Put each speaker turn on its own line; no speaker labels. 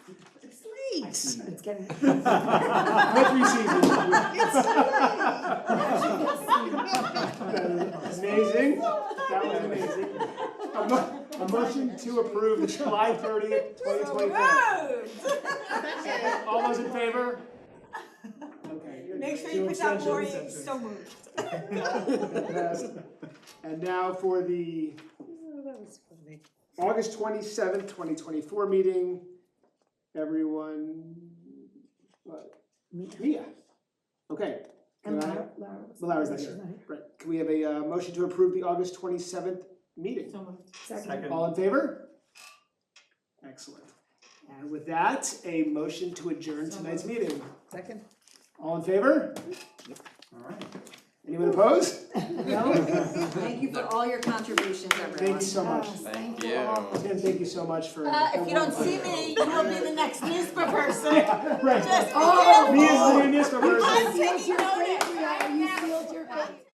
It's
It's
getting.
Every season. Amazing, that was amazing. A mo- a motion to approve the July thirtieth, twenty twenty-four. All those in favor? Okay.
Make sure
Two
you put down
abstentions.
Lori, so moved.
Passed. And now for the August twenty-seventh, twenty twenty-four meeting. Everyone, but, Mia. Okay.
And
Can I-
Lara, Lara was.
Well, Lara's not here. Right, can we have a uh, motion to approve the August twenty-seventh meeting?
So moved.
Second,
All in favor? Excellent. And with that, a motion to adjourn tonight's meeting.
second.
All in favor? All right. Anyone opposed? No?
Thank you for all your contributions,
Thank you so much.
Thank
all.
you.
Tim, thank you so much for.
Uh, if you don't see me, you'll be the next NISBA person.
Yeah, Right.
Just be
Me
careful.
is Oh, the new NISBA person.
I'm taking notice right now.
You sealed your fate.